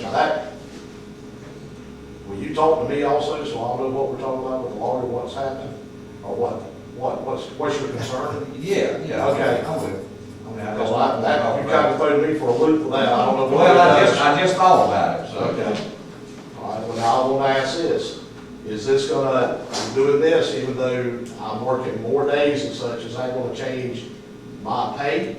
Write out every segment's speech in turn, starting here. that, will you talk to me also, so I'll know what we're talking about with the lawyer, what's happening, or what, what, what's, what's your concern? Yeah, yeah. Okay. I will. I mean, I just- Because I, that, you kind of threw me for a loop with that, I don't know what it Well, I just, does. I just thought about it, so. Okay. All right, well, now I want to ask this, is this gonna, I'm doing this, even though I'm working more days and such, is that gonna change my pay?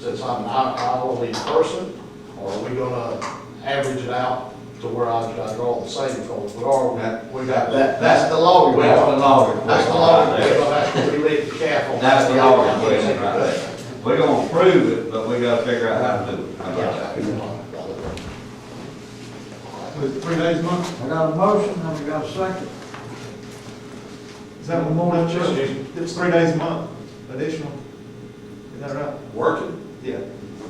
Since I'm an hou- hourly person, or are we gonna average it out to where I, I draw the same, because we are, we got, that, that's the law. we're That's the going. law requirement. That's the law, we're going. that's where we leave the cap on. That's the law requirement, right Right. there. We're gonna prove it, but we gotta figure out how to do it. How about that? Yeah. With three days a month? I got a motion, and we got a second. Is that one more, Judge? It's three days a month, additional. Is that right? Working? Yeah.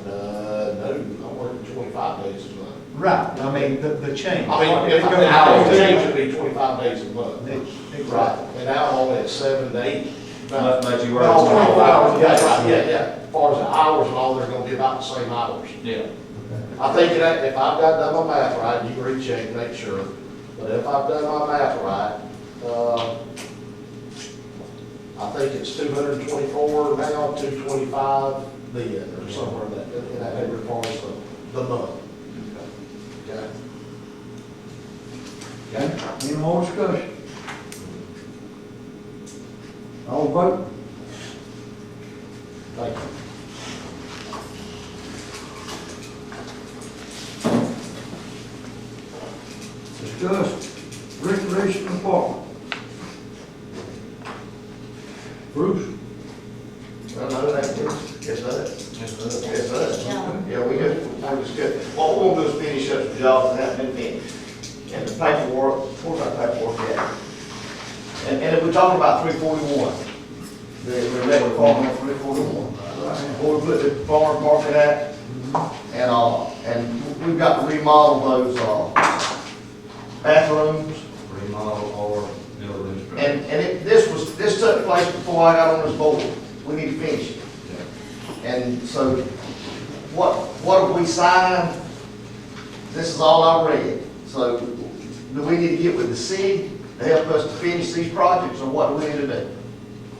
Uh, no, I'm working twenty-five days a month. Right, I mean, the, the change. I mean, if It I goes- mean, I would change it to be twenty-five days a month. Ex- Right, Exactly. and now I'm only at seven to eight. But, About but you were. about twenty-four hours, yeah, That's right, yeah, yeah. As far as the hours and all, they're gonna be about the same hours. Yeah. I think that if I've got done my math right, you can recheck, make sure, but if I've done my math right, uh, I think it's two hundred and twenty-four now, two twenty-five then, or somewhere in that, in that neighborhood, far as the, the month. Okay? Okay? Any more discussion? All vote? Thank you. Discuss recreation department. Bruce? Well, no, that is, yes, that is. Yes, that is. Yeah, we just, we just get, well, we'll just finish up the jobs and that, and then, and the paperwork, where's our paperwork at? And, and if we're talking about three forty-one, the, the regular farm on three forty-one, where we put the farm market at, and, uh, and we've got to remodel those, uh, bathrooms, Remodel or build a new structure. and, and it, this was, this took place before I got on this board, we need to finish it. Yeah. And so, what, what have we signed? This is all I read. So, do we need to get with the city to help us to finish these projects, or what do we need to do?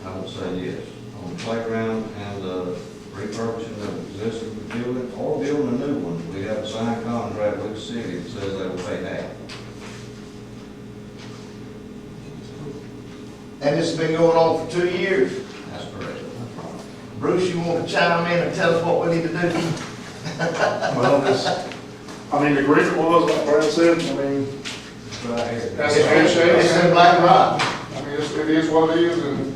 I would say yes, on the playground and uh, refurbishing of existing building or building a new one. We have a signed contract with the city that says they will pay half. And this has been going on for two years. That's correct. Bruce, you want to chime in and tell us what we need to do? Well, this, I mean, the agreement was, like Brad said, I mean, That's the handshake. It's in black and white. I mean, it's- it is what it is, and,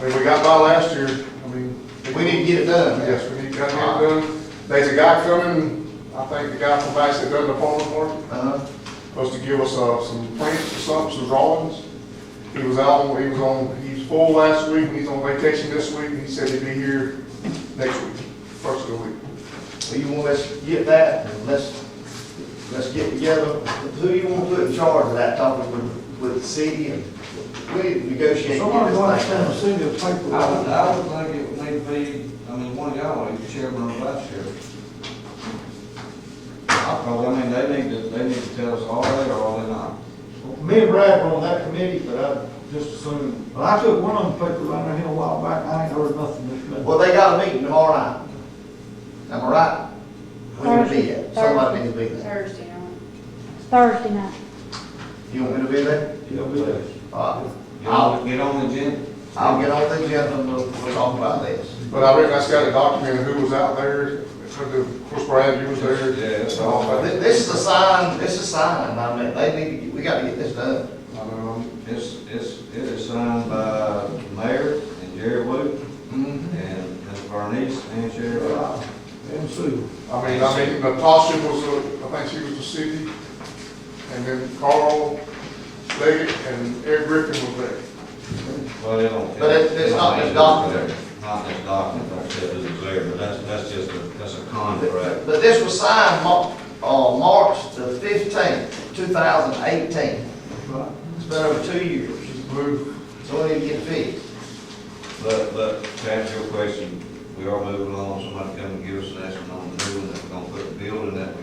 I mean, we got by last year, I mean. We need to get it done. Yes, we need to get it done. There's a guy coming, I think the guy from Bass that done the farm work, Uh-huh. supposed to give us, uh, some plans or something, some drawings. He was out, he was on, he's full last week, and he's on vacation this week, and he said he'd be here next week, first of the week. So you want us to get that, and let's, let's get together. Who you want to put in charge of that, talking with, with the city, and we need to negotiate. and get Somebody this want to thing done. send a city a paper? I would, I would think it would need to be, I mean, one of y'all, either chairman or vice chairman. I probably, I mean, they need to, they need to tell us all they or all they not. Me and Brad were on that committee, but I just assumed, but I took one of them papers around here a while back, and I ain't heard nothing this minute. Well, they got a meeting tomorrow night. Am I right? We need to be there. Somebody needs to be there. Thursday night. Thursday night. You want me to be there? You'll be there. All right. Get I'll, on, get on the agenda. I'll get on the agenda and we'll, we'll talk about this. But I reckon that's got to document who was out there, of course, Brad, you was there. Yeah, that's all. all. But thi- This is a sign, this is a sign. I mean, they need to, get- we gotta get this done. It's, it's, it is signed by the mayor and Jerry Wood Mm-hmm. and Ms. Bernice and Sheriff. And Sue. I mean, I mean, Natasha was, uh, I think she was the city, and then Carl Leggett and Eric Griffin was there. Well, they don't. But it's- it's not this document. Not this document, like I said, it is there, but that's, that's just a, that's a contract. But this was signed Mar- uh, March the fifteenth, two thousand eighteen. Right. It's been over two years. So we need to get fixed. But, but to answer your question, we are moving along, somebody come and give us an estimate on the new one that we're gonna put the building that we